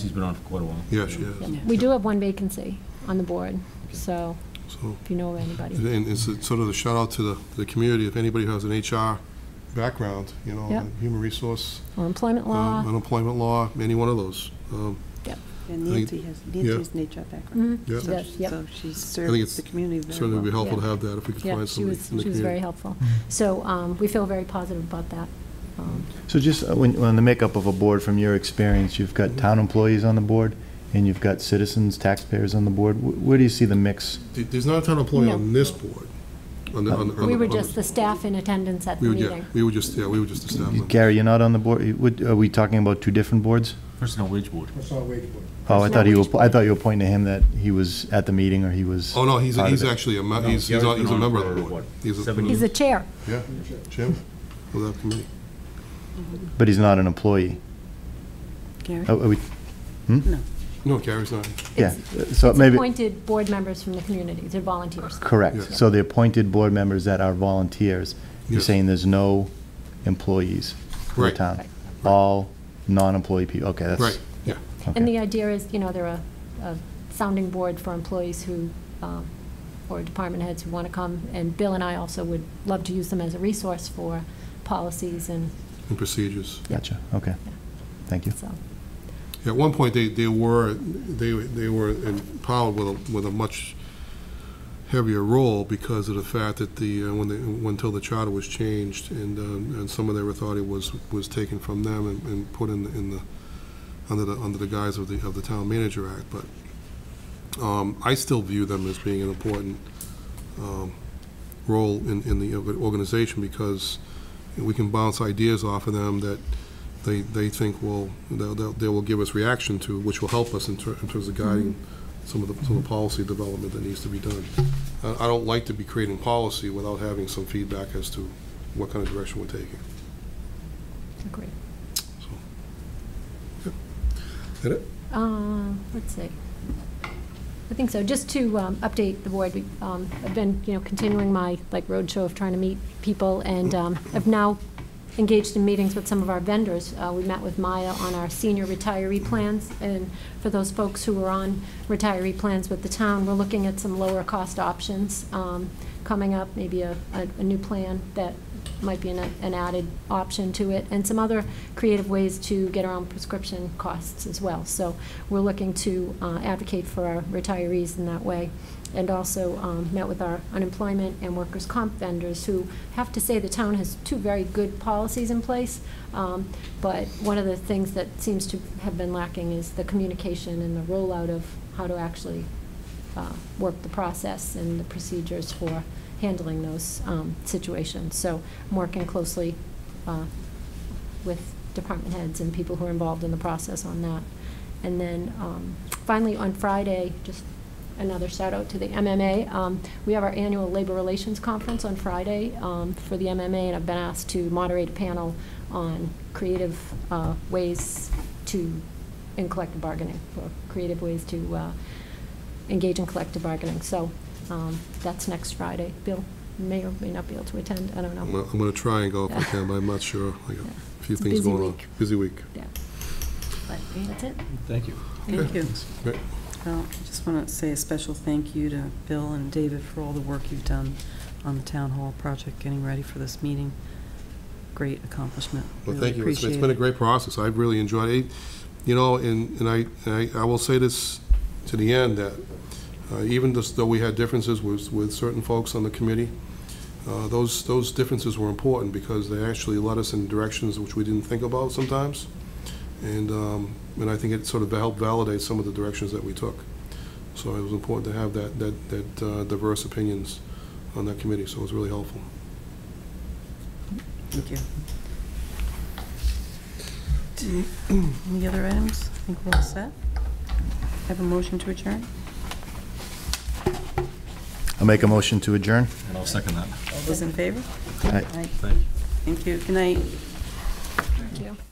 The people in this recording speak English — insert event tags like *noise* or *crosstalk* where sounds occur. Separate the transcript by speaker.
Speaker 1: She's been on for quite a while.
Speaker 2: Yeah, she is.
Speaker 3: We do have one vacancy on the board, so
Speaker 2: So,
Speaker 3: if you know of anybody.
Speaker 2: and it's a- sort of the shout out to the, to the community, if anybody who has an HR background, you know,
Speaker 3: Yep.
Speaker 2: human resource,
Speaker 3: Or employment
Speaker 2: um,
Speaker 3: law,
Speaker 2: unemployment law, any one of those. Um,
Speaker 4: And
Speaker 2: I think-
Speaker 4: Nancy has, Nancy has an HR background.
Speaker 3: Mhm,
Speaker 2: Yeah.
Speaker 3: she does, yep.
Speaker 4: So she
Speaker 2: it's
Speaker 4: serves the community very
Speaker 2: Certainly would be
Speaker 4: well.
Speaker 2: helpful to have that if we could
Speaker 3: Yeah,
Speaker 2: find
Speaker 3: she
Speaker 2: somebody
Speaker 3: was,
Speaker 2: in the
Speaker 3: she was very
Speaker 2: community.
Speaker 3: helpful. So um, we feel very positive about that. Um,
Speaker 5: So just uh, when, on the makeup of a board, from your experience, you've got town employees on the board, and you've got citizens, taxpayers on the board. Wh- Where do you see the mix?
Speaker 2: There- There's not a ton of employee
Speaker 3: No.
Speaker 2: on this board. on the- on the- on
Speaker 3: We
Speaker 2: the-
Speaker 3: were
Speaker 2: on the-
Speaker 3: just the staff in attendance at
Speaker 2: We
Speaker 3: the
Speaker 2: would, yeah,
Speaker 3: meeting.
Speaker 2: we would just, yeah, we would just establish them.
Speaker 5: Gary, you're not on the board, You- would- are we talking about two different boards?
Speaker 1: Personnel wage board.
Speaker 6: Personnel wage board.
Speaker 5: Oh, I
Speaker 3: Personnel
Speaker 5: thought you,
Speaker 3: wage
Speaker 5: were- I thought you were pointing to him that he was at the meeting, or he was.
Speaker 2: Oh, no, he's,
Speaker 5: part of
Speaker 2: he's
Speaker 5: it.
Speaker 2: actually a, me-
Speaker 1: No,
Speaker 2: he's, he's
Speaker 1: Gary's
Speaker 2: a he's a
Speaker 1: been on
Speaker 2: member of the
Speaker 1: for,
Speaker 2: board.
Speaker 1: what,
Speaker 2: He's a-
Speaker 1: seven
Speaker 3: He's the chair.
Speaker 2: Yeah, Jim, of that committee.
Speaker 5: But he's not an employee. Oh,
Speaker 4: Gary?
Speaker 5: Are- are we-
Speaker 2: No, Gary's not.
Speaker 5: Yeah,
Speaker 3: It's-
Speaker 5: uh, so
Speaker 3: it's
Speaker 5: maybe,
Speaker 3: appointed board members from the community. They're volunteers.
Speaker 5: correct.
Speaker 2: Yeah.
Speaker 5: So the appointed board members that are volunteers, you're
Speaker 2: Yes.
Speaker 5: saying there's no employees for the
Speaker 2: Right.
Speaker 5: town?
Speaker 3: Right.
Speaker 5: All non-employee people, okay, that's.
Speaker 2: Right, yeah.
Speaker 3: And
Speaker 5: okay.
Speaker 3: the idea is, you know, they're a, a sounding board for employees who, um, or department heads who want to come. And Bill and I also would love to use them as a resource for policies and
Speaker 2: And procedures.
Speaker 5: Gotcha, okay. Thank you.
Speaker 3: so.
Speaker 2: At one point, they, they were, they, they were empowered with a, with a much heavier role because of the fact that the, uh, when they, when until the charter was changed, and, um, and some of their authority was, was taken from them and, and put in, the- in the, under the, under the guise of the, of the Town Manager Act, but, um, I still view them as being an important, um, role in, in the organization, because we can bounce ideas off of them that, they, they think will, they'll- they'll- they will give us reaction to, which will help us in ter- in terms of guiding some of the, some of the policy development that needs to be done. I I don't like to be creating policy without having some feedback as to what kind of direction we're taking.
Speaker 3: Agreed.
Speaker 2: Is that it?
Speaker 3: Uh, Let's see. I think so. Just to um, update the board, we, um, I've been, you know, continuing my, like, roadshow of trying to meet people, and um, I've now engaged in meetings with some of our vendors. Uh, We met with Maya on our senior retiree plans, and for those folks who are on retiree plans with the town, we're looking at some lower-cost options um, coming up, maybe a, a a new plan that might be an, an added option to it, and some other creative ways to get around prescription costs as well. So we're looking to uh, advocate for our retirees in that way, and also um, met with our unemployment and workers' comp vendors, who have to say the town has two very good policies in place, um, but one of the things that seems to have been lacking is the communication and the rollout of how to actually uh, work the process and the procedures for handling those um, situations. So I'm working closely uh, with department heads and people who are involved in the process on that. And then um, finally, on Friday, just another shout out to the MMA. um, We have our annual Labor Relations Conference on Friday um, for the MMA, and I've been asked to moderate a panel on creative uh, ways to, in collective bargaining, or creative ways to uh, engage in collective bargaining. So um, that's next Friday. Bill may or may not be able to attend, I don't
Speaker 2: I'm
Speaker 3: know.
Speaker 2: gonna- I'm going to try and go if I can, but I'm not
Speaker 3: *laughs*
Speaker 2: sure. I got a few
Speaker 3: It's a
Speaker 2: things
Speaker 3: busy
Speaker 2: going on.
Speaker 3: week.
Speaker 2: Busy week.
Speaker 3: Yeah. But that's it.
Speaker 1: Thank you.
Speaker 4: Thank you.
Speaker 2: Great.
Speaker 4: Well, I just want to say a special thank you to Bill and David for all the work you've done on the town hall project, getting ready for this meeting. Great accomplishment.
Speaker 2: Well,
Speaker 4: Really
Speaker 2: thank you. It's- It's
Speaker 4: appreciate
Speaker 2: been a
Speaker 4: it.
Speaker 2: great process. I've really enjoyed it. You know, and, and I, and I I will say this to the end, that uh, even just though we had differences with, with certain folks on the committee, uh, those, those differences were important because they actually led us in directions which we didn't think about sometimes. And, um, and I think it sort of helped validate some of the directions that we took. So it was important to have that, that, that uh, diverse opinions on that committee, so it was really helpful.
Speaker 4: Thank you. *clears throat* Any other items? I think we're all set. Have a motion to adjourn?
Speaker 5: I'll make a motion to adjourn.
Speaker 1: And I'll second that.
Speaker 4: All those in favor?
Speaker 5: Aye.
Speaker 4: Aye.
Speaker 1: Thank you.
Speaker 4: Thank you. Good night.
Speaker 3: Thank you.